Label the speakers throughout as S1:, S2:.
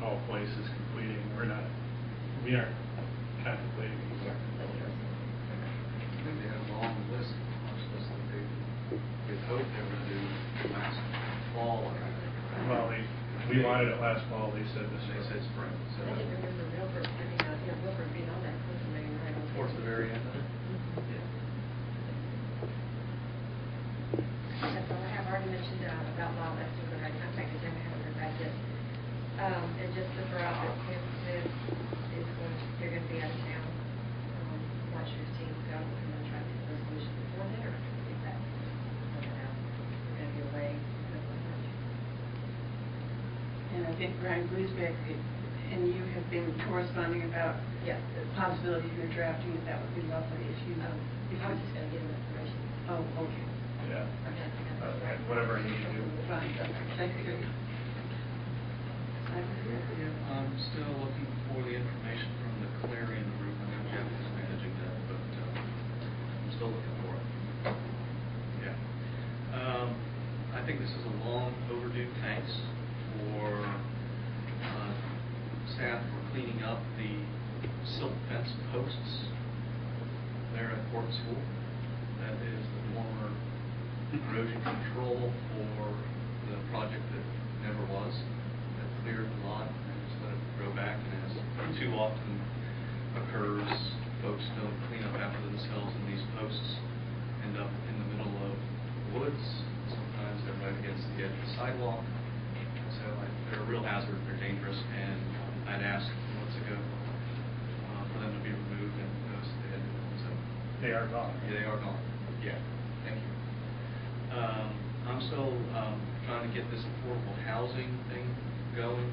S1: Powell Place is uh, completing, we're not, we aren't contemplating.
S2: think they had a long list, much less than they had hoped they were gonna do last fall, I think. right?
S1: Well, they, we wanted it last fall, they said this,
S2: They said spring,
S3: I
S2: so.
S3: can remember Wilbur being out here, Wilbur being on that council meeting right on.
S2: Towards the very end of it.
S3: That's all I have, I already mentioned uh, about law, that's the right contact, because I haven't heard back yet. Um, and just to throw out that Sam Smith is going, to- they're gonna be out of town, um, watch your team go, and then try to get a resolution before dinner, I can see that. We're gonna be away, because of lunch.
S4: And I think Brian Griesbeck and you have been corresponding about
S3: Yeah.
S4: the possibility of your drafting, it. that would be lovely if you,
S3: Um,
S4: if
S3: I was just
S4: you,
S3: gonna give him information.
S4: oh, okay,
S1: yeah. Uh, and whatever I need to do.
S4: fine, thank you. I was here
S5: Uh,
S4: for you.
S2: I'm still looking for the information from the Clarion Group, I know Jeff is managing that, but uh, I'm still looking for it. Yeah. Um, I think this is a long overdue thanks for uh, staff for cleaning up the silk fence posts there at Fort School. That is the former erosion control for the project that never was, that cleared the lot and just let it grow back. And as too often occurs, folks don't clean up after themselves and these posts end up in the middle of woods. Sometimes they're right against the edge of the sidewalk. So I- they're a real hazard, they're dangerous, and I'd asked months ago uh, for them to be removed and noticed they had, been, so
S1: They are gone.
S2: Oh, yeah, they are gone. Yeah, thank you. Um, I'm still, um, trying to get this affordable housing thing going.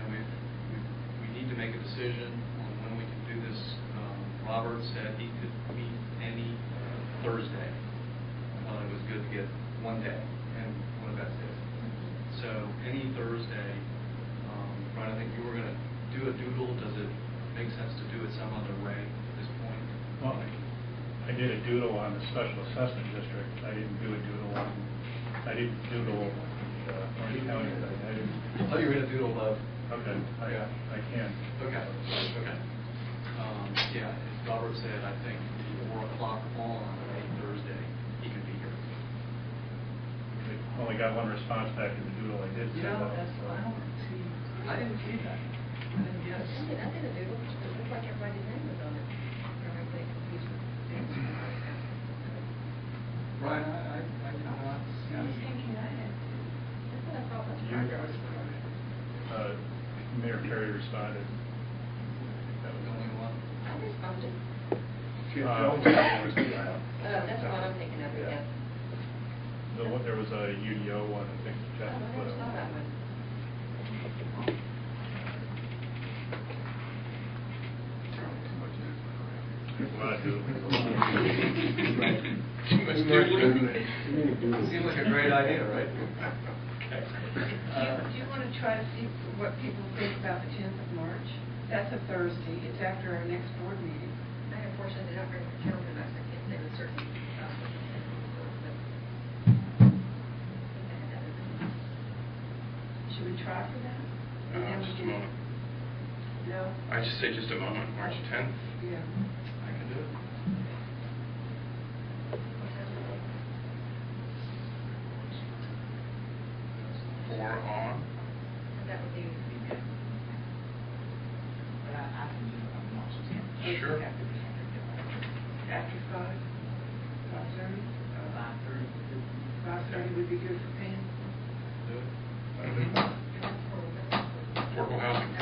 S2: And we've, we- we need to make a decision on when we can do this. Um, Robert said he could meet any uh, Thursday. I thought it was good to get one day, and one of that's it. So any Thursday, um, Brian, I think you were gonna do a doodle. Does it make sense to do it some other way at this point?
S1: Well, I did a doodle on the special assessment district, I didn't do a doodle on, I didn't doodle, uh, Orange County, I didn't.
S2: I thought you were gonna doodle love.
S1: Okay,
S2: Oh,
S1: I, I can.
S2: Okay, okay. Um, yeah, as Robert said, I think four o'clock on a Thursday, he could be here.
S1: I Only got one response back in the doodle I did. send out, so-
S4: see.
S2: I didn't see that. I didn't
S3: I
S2: guess.
S3: did, I did a doodle, it looked like everybody's name was on it, or everybody confused with the
S2: Brian, I, I, I did not see.
S3: That's what I thought was.
S1: You- Uh, Mayor Perry responded.
S2: That was only one.
S3: I responded,
S1: Uh,
S3: uh, that's what I'm thinking of, yeah.
S1: The one, there was a UDO one, I think.
S3: Oh, I
S1: Jeff
S3: never
S1: put
S3: saw that
S1: up.
S3: one.
S1: Well, I do.
S2: Too much doodling. Seemed like a great idea, right? Uh,
S4: Do you want to try to see what people think about the 10th of March? That's a Thursday, it's after our next board meeting.
S3: I unfortunately did not bring my calendar, back, so I can't say with certainty. uh, what the schedule was, but I think I had that in mind.
S4: Should we try for that?
S5: Uh,
S4: And then we
S5: just a
S4: can-
S5: moment.
S4: No?
S5: I just say just a moment, March 10th.
S4: Yeah.
S2: I can do it.
S3: What time is it?
S5: Four on.
S3: And That would be,
S6: But I, I can do it on March tenth.
S5: Sure.
S4: After five, five thirty?
S6: Five thirty.
S4: Five thirty uh, would be good for Pam.
S2: Do it. Mm-hmm.
S5: Mhm.
S3: that's for, that's for.
S5: Affordable housing.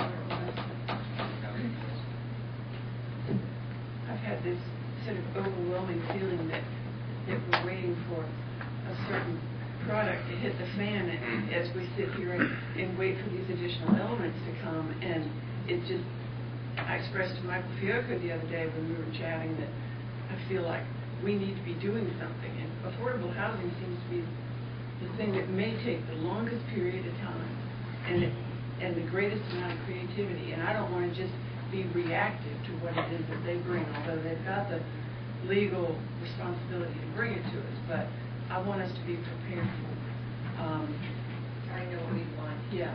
S4: I've had this sort of overwhelming feeling that, that we're waiting for a certain product to hit the fan and-
S5: Mm.
S4: as we sit here and, and wait for these additional elements to come. And it just, I expressed to Michael Fiocco the other day when we were chatting that I feel like we need to be doing something. And affordable housing seems to be the thing that may take the longest period of time and, it- and the greatest amount of creativity. And I don't want to just be reactive to what it is that they bring, although they've got the legal responsibility to bring it to us. But I want us to be prepared for, um,
S3: I know what we want.
S4: yeah,